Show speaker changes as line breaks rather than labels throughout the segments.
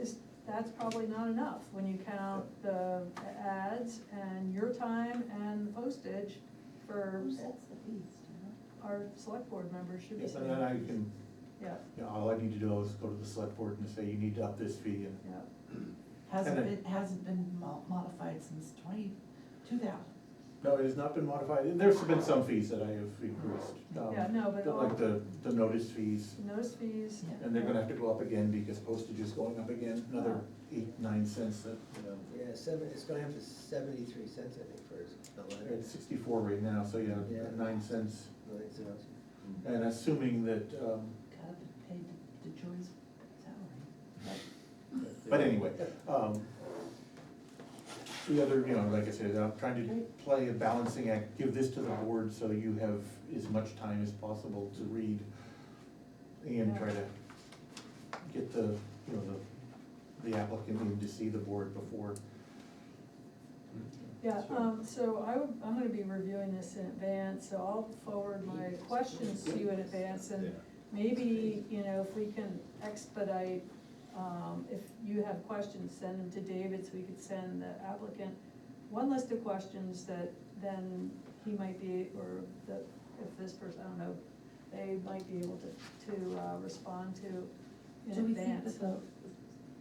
is, that's probably not enough, when you count the ads and your time and the postage for
Who sets the fees, do you know?
our select board members should be.
Yeah, so then I can,
Yeah,
you know, all I need to do is go to the select board and say, you need to up this fee and.
yeah.
Hasn't
And I-
been, hasn't been mo- modified since twenty, two thousand.
No, it has not been modified, there's been some fees that I have increased. um,
Yeah, no, but
the- Like
all-
the, the notice fees,
Those fees.
Yeah.
and they're gonna have to go up again because postage is going up again, another eight, nine cents, that,
Yeah, seven, it's going up to seventy-three cents, I think, for the letter.
it's sixty-four right now, so yeah,
Yeah.
nine cents.
Like, so it's-
And assuming that, um,
Gotta have been paid to- to Joy's salary.
Uh,
But anyway, um, the other, you know, like I said, I'm trying to play a balancing act, give this to the board so you have as much time as possible to read and try to get the, you know, the, the applicant in to see the board before.
Yeah, um, so I would, I'm gonna be reviewing this in advance, so I'll forward my questions to you in advance and maybe, you know, if we can expedite, um, if you have questions, send them to David so we could send the applicant one list of questions that then he might be, or that, if this person, I don't know, they might be able to, to, uh, respond to
Do
in
we think that
advance.
the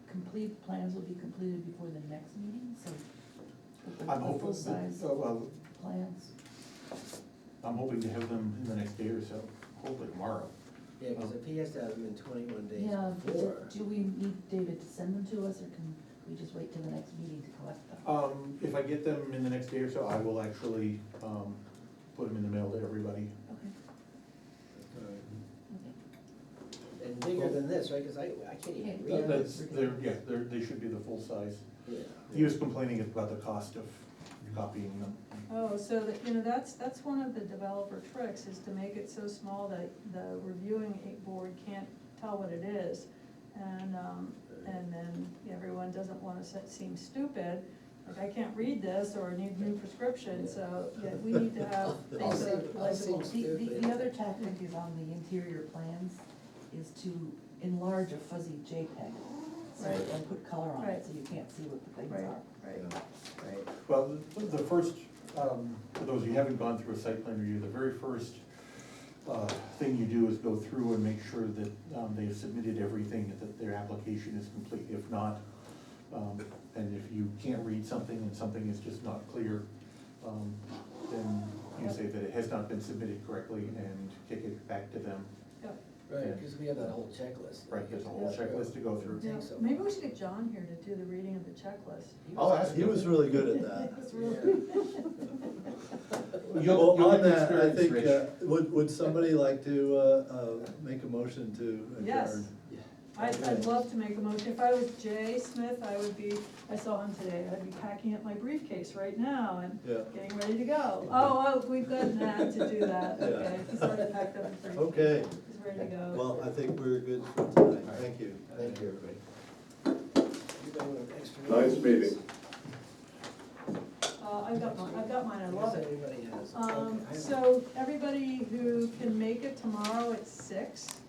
complete plans will be completed before the next meeting, so? that the
I'm hoping,
Full size
so, uh, well,
plans,
I'm hoping to have them in the next day or so, hopefully tomorrow.
Yeah, because the P has to have them in twenty-one days
yeah, do-
before.
do we need David to send them to us, or can we just wait till the next meeting to collect them?
Um, if I get them in the next day or so, I will actually, um, put them in the mail to everybody.
Okay, okay.
And bigger than this, right, because I, I can't even
Yeah.
That-
read
That's,
this.
they're, yeah, they're, they should be the full size.
Yeah.
He was complaining about the cost of copying them.
Oh, so that, you know, that's, that's one of the developer tricks, is to make it so small that the reviewing board can't tell what it is. And, um, and then everyone doesn't wanna se- seem stupid, like, I can't read this, or I need a new prescription, so, yeah, we need to have
I'll
things
say-
that are
I'll say-
legible.
The, the, the other tactic is on the interior plans, is to enlarge a fuzzy JPEG, so,
Right.
and put color on
Right.
it, so you can't see what the things
Right,
are.
right.
Right.
Well, the the first, um, for those who haven't gone through a site plan review, the very first uh, thing you do is go through and make sure that um, they've submitted everything, that their application is complete. If not, um, and if you can't read something and something is just not clear, um, then you say that it has not been submitted correctly and kick it back to them.
Yep.
Right, because we have that whole checklist.
Right, there's a whole checklist to go through.
Yeah,
Think so.
Maybe we should get John here to do the reading of the checklist.
I'll ask
He
him.
was really good at that.
It's
Yeah.
really-
You'll,
Well,
you'll
on
have
that, I
experience,
think,
Rich.
uh, would, would somebody like to, uh, uh, make a motion to adjourn?
Yes.
Yeah.
I'd, I'd love to make a motion, if I was Jay Smith, I would be, I saw him today, I'd be packing up my briefcase right now and
Yeah.
getting ready to go. Oh, oh, we've got Matt to do that,
Yeah.
okay, he's already packed up his briefcase.
Okay.
He's ready to go.
Well, I think we're good for tonight, thank you.
Thank you, everybody. You don't want an extra.
Nice meeting.
Uh, I've got mine, I've got mine, I love it.
Everybody has.
Um,
Okay, I-
so, everybody who can make it tomorrow at six, um,